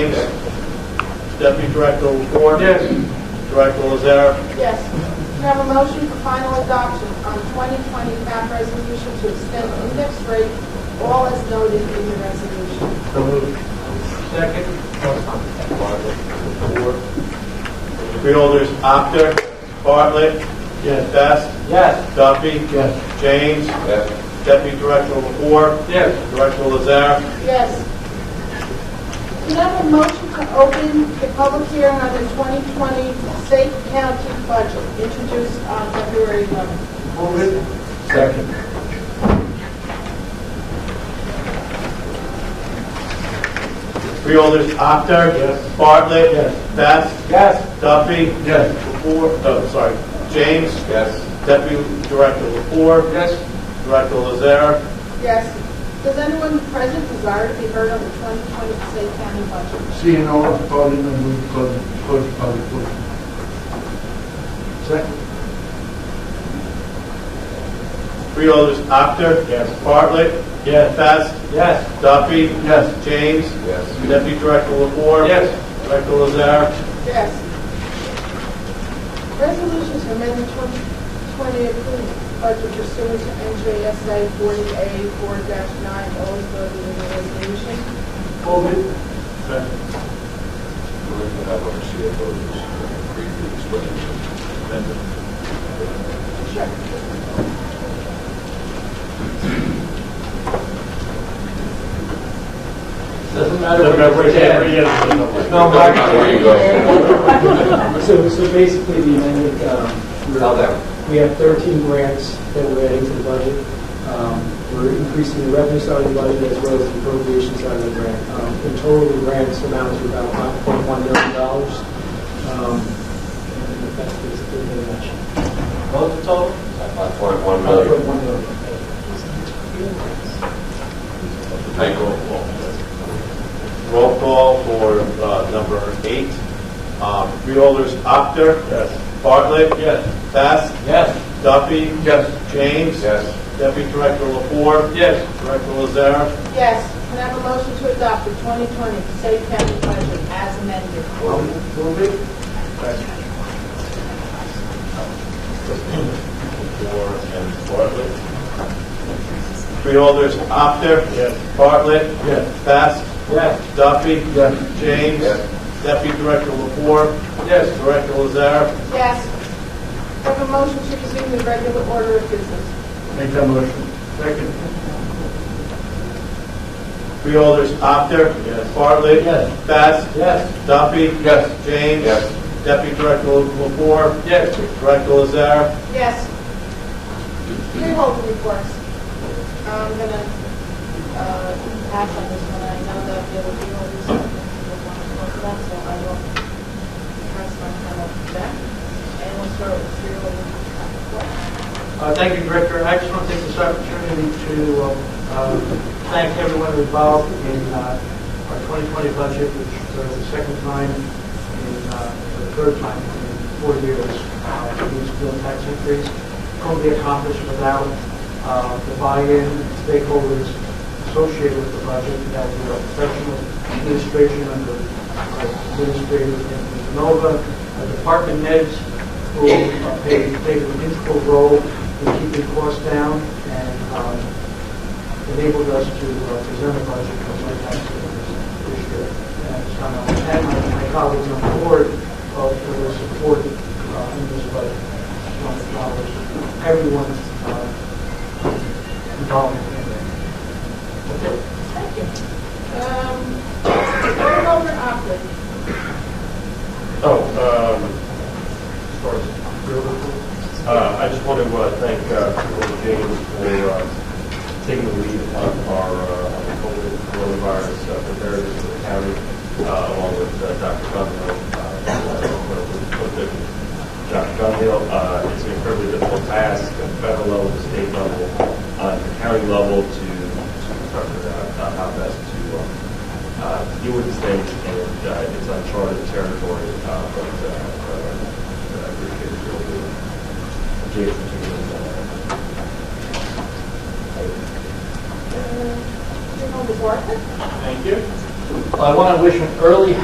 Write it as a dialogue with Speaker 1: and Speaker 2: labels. Speaker 1: Deputy Director Lapore.
Speaker 2: Yes.
Speaker 1: Director Lazar.
Speaker 3: Yes. We have a motion for final adoption on 2020 cap resolution to extend the index rate, all as noted in the resolution.
Speaker 1: So moved.
Speaker 2: Second.
Speaker 1: Freeholders, Apter, Bartlett. Yes. Best.
Speaker 2: Yes.
Speaker 1: Duffy.
Speaker 2: Yes.
Speaker 1: James. Deputy Director Lapore.
Speaker 2: Yes.
Speaker 1: Director Lazar.
Speaker 3: Yes. Can I have a motion to open the public hearing on the 2020 state county budget introduced on February 11th?
Speaker 2: Move it.
Speaker 1: Second. Freeholders, Apter.
Speaker 2: Yes.
Speaker 1: Bartlett.
Speaker 2: Yes.
Speaker 1: Best.
Speaker 2: Yes.
Speaker 1: Duffy.
Speaker 2: Yes.
Speaker 1: Lapore, oh, sorry, James.
Speaker 2: Yes.
Speaker 1: Deputy Director Lapore.
Speaker 2: Yes.
Speaker 1: Director Lazare.
Speaker 3: Yes. Does anyone present desire to be heard on the 2020 state county budget?
Speaker 4: Seeing all of calling and move close, close public portion. Second.
Speaker 1: Freeholders, Apter. Yes. Bartlett. Yes. Best.
Speaker 2: Yes.
Speaker 1: Duffy.
Speaker 4: Yes.
Speaker 1: James.
Speaker 2: Yes.
Speaker 1: Deputy Director Lapore.
Speaker 2: Yes.
Speaker 1: Director Lazare.
Speaker 3: Yes. Resolutions to amend the 2020 approved budget pursuant to NJSA 40A 4-9, all is noted in the resolution.
Speaker 2: Move it.
Speaker 5: We're going to have our CFO just briefly explain the amendment.
Speaker 2: Doesn't matter where you There's no
Speaker 5: Doesn't matter where you go.
Speaker 6: So, so basically, the amended, um,
Speaker 5: Spell that.
Speaker 6: we have 13 grants that we're adding to the budget. Um, We're increasing the revenue side of the budget as well as the appropriation side of the grant. Um, In total, the grants amount to about $5.1 million. Um, And that's basically the amount.
Speaker 2: What's the total?
Speaker 5: Five point one million.
Speaker 6: $5.1 million.
Speaker 5: Thank you.
Speaker 1: Roll call for uh, number eight. Um, Freeholders, Apter. Yes. Bartlett.
Speaker 2: Yes.
Speaker 1: Best.
Speaker 2: Yes.
Speaker 1: Duffy.
Speaker 2: Yes.
Speaker 1: James.
Speaker 5: Yes.
Speaker 1: Deputy Director Lapore.
Speaker 2: Yes.
Speaker 1: Director Lazare.
Speaker 3: Yes. Can I have a motion to adopt the 2020 state county budget as amended?
Speaker 2: Move it.
Speaker 1: Moore and Bartlett. Freeholders, Apter. Yes. Bartlett. Yes. Best.
Speaker 2: Yes.
Speaker 1: Duffy.
Speaker 4: Yes.
Speaker 1: James.
Speaker 5: Yes.
Speaker 1: Deputy Director Lapore.
Speaker 2: Yes.
Speaker 1: Director Lazar.
Speaker 3: Yes. Can I have a motion to resume the regular order of business?
Speaker 4: Make that motion. Second.
Speaker 1: Freeholders, Apter. Yes. Bartlett. Yes. Best.
Speaker 2: Yes.
Speaker 1: Duffy.
Speaker 2: Yes.
Speaker 1: James.
Speaker 5: Yes.
Speaker 1: Deputy Director Lapore.
Speaker 2: Yes.
Speaker 1: Director Lazar.
Speaker 3: Yes. Freeholder reports. I'm going to pass on this one. I know that there will be holders that will want to talk about, so I will pass my time off to them. And we'll start with freeholder.
Speaker 2: Uh, Thank you, Director. I just want to take this opportunity to uh, thank everyone involved in uh, our 2020 budget, which uh, is the second time, in uh, the third time in four years, uh, the municipal tax increase. Couldn't be accomplished without uh, the buy-in stakeholders associated with the budget, that were professional administration under uh, Administrator Nova, uh, department heads, who uh, play, play an integral role in keeping costs down and um, enabled us to uh, present a budget for my tax service this year. And so I want to thank my- my colleagues on the board uh, for their support uh, in this budget. I just want to acknowledge everyone's uh, involvement in it. Okay.
Speaker 3: Thank you. Um, Freeholder Optic.
Speaker 7: Oh, um, as far as career goes, uh, I just want to uh, thank uh, Colonel James for uh, taking the lead on our uh, on the COVID coronavirus uh, preparedness for the county, uh, along with uh, Dr. Dunhill. uh, with the- Dr. Dunhill, Uh, it's an incredibly difficult task at the federal level, the state level, uh, the county level to to figure out how best to uh, uh, deal with things, and uh, it's uncharted territory, uh, but uh, uh, I appreciate your doing Jason, to
Speaker 3: Freeholder Bartlett.
Speaker 1: Thank you.
Speaker 2: Well, I want to wish an early